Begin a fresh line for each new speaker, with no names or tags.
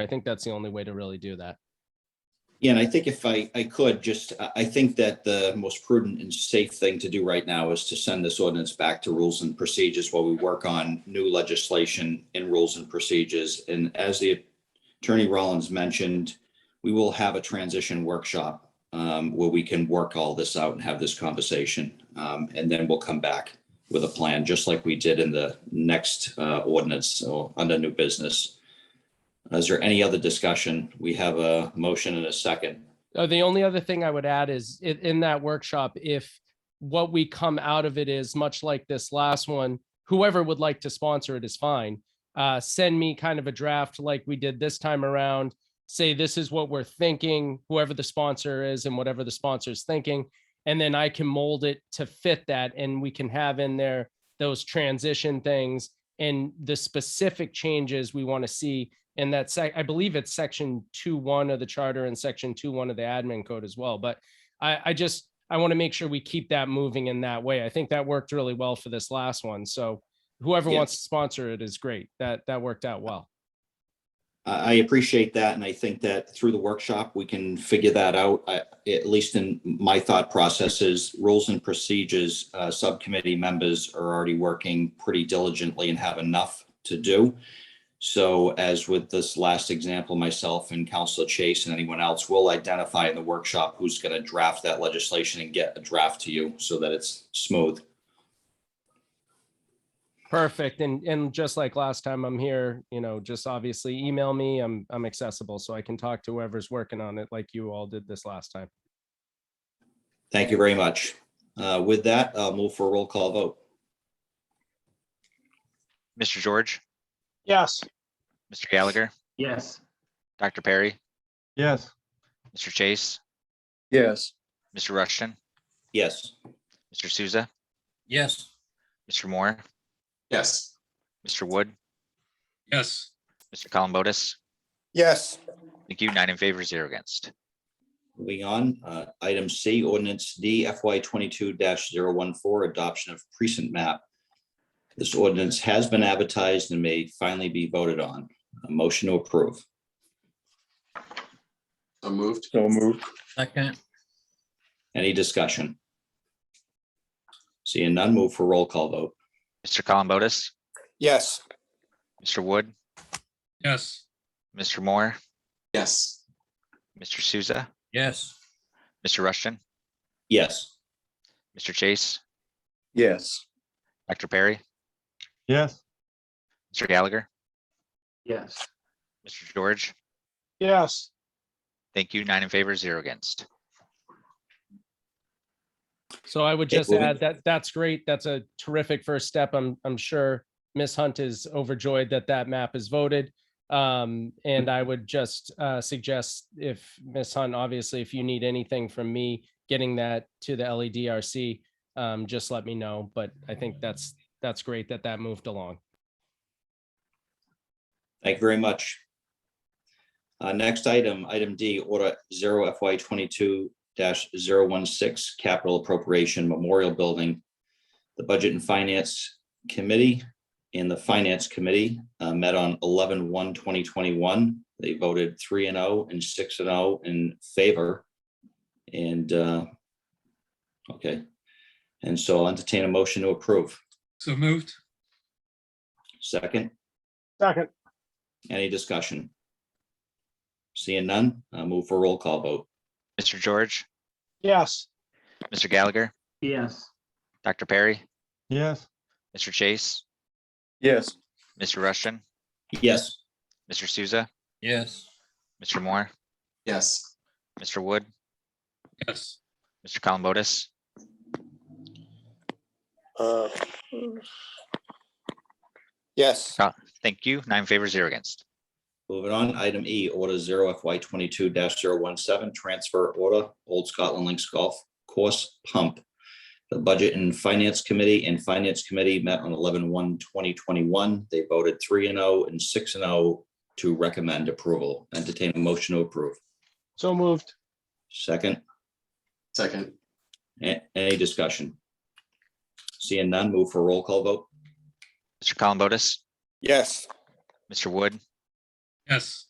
I think that's the only way to really do that.
Yeah, and I think if I, I could, just, I, I think that the most prudent and safe thing to do right now is to send this ordinance back to rules and procedures while we work on new legislation and rules and procedures. And as the Attorney Rollins mentioned, we will have a transition workshop um, where we can work all this out and have this conversation. Um, and then we'll come back with a plan, just like we did in the next uh, ordinance or under new business. Is there any other discussion? We have a motion and a second.
Uh, the only other thing I would add is i- in that workshop, if what we come out of it is much like this last one, whoever would like to sponsor it is fine. Uh, send me kind of a draft like we did this time around. Say this is what we're thinking, whoever the sponsor is and whatever the sponsor is thinking. And then I can mold it to fit that and we can have in there those transition things and the specific changes we want to see and that sec, I believe it's section two one of the charter and section two one of the admin code as well, but I, I just, I want to make sure we keep that moving in that way. I think that worked really well for this last one, so whoever
Yeah.
wants to sponsor it is great. That, that worked out well.
I, I appreciate that, and I think that through the workshop, we can figure that out. I, at least in my thought processes, rules and procedures, uh, subcommittee members are already working pretty diligently and have enough to do. So as with this last example, myself and Counselor Chase and anyone else will identify in the workshop who's going to draft that legislation and get a draft to you so that it's smooth.
Perfect, and, and just like last time, I'm here, you know, just obviously email me, I'm, I'm accessible, so I can talk to whoever's working on it like you all did this last time.
Thank you very much. Uh, With that, I'll move for a roll call vote.
Mr. George,
Yes.
Mr. Gallagher,
Yes.
Dr. Perry,
Yes.
Mr. Chase,
Yes.
Mr. Rushton,
Yes.
Mr. Souza,
Yes.
Mr. Moore,
Yes.
Mr. Wood,
Yes.
Mr. Columbotus.
Yes.
Thank you. Nine in favor, zero against.
Moving on, uh, item C, ordinance D FY twenty-two 14 adoption of precinct map. This ordinance has been advertised and may finally be voted on. A motion to approve.
So moved. So moved. Second.
Any discussion? Seeing none, move for roll call vote.
Mr. Columbotus,
Yes.
Mr. Wood,
Yes.
Mr. Moore,
Yes.
Mr. Souza,
Yes.
Mr. Rushton,
Yes.
Mr. Chase,
Yes.
Dr. Perry,
Yes.
Mr. Gallagher,
Yes.
Mr. George.
Yes.
Thank you. Nine in favor, zero against.
So I would
Okay,
just
moving-
add that that's great. That's a terrific first step. I'm I'm sure Miss Hunt is overjoyed that that map is voted. Um, and I would just uh, suggest if Miss Hunt, obviously, if you need anything from me getting that to the E LEDRC, um, just let me know. But I think that's that's great that that moved along.
Thank you very much. Uh, next item, item D, order zero FY twenty-two 16 capital appropriation memorial building. The Budget and Finance Committee and the Finance Committee uh, met on 11-1-2021. They voted three and oh and six and oh in favor. And, uh, okay. And so I'll entertain a motion to approve.
So moved.
Second?
Second.
Any discussion? Seeing none, uh, move for roll call vote.
Mr. George,
Yes.
Mr. Gallagher,
Yes.
Dr. Perry,
Yes.
Mr. Chase,
Yes.
Mr. Rushton,
Yes.
Mr. Souza,
Yes.
Mr. Moore,
Yes.
Mr. Wood,
Yes.
Mr. Columbotus,
Uh, Yes,
Thank you. Nine in favor, zero against.
Moving on, item E, order zero FY twenty-two 17 transfer order, Old Scotland Links Golf Course Pump. The Budget and Finance Committee and Finance Committee met on 11-1-2021. They voted three and oh and six and oh to recommend approval. Entertain a motion to approve.
So moved.
Second,
Second.
a- any discussion? Seeing none, move for roll call vote.
Mr. Columbotus,
yes,
Mr. Wood,
Yes.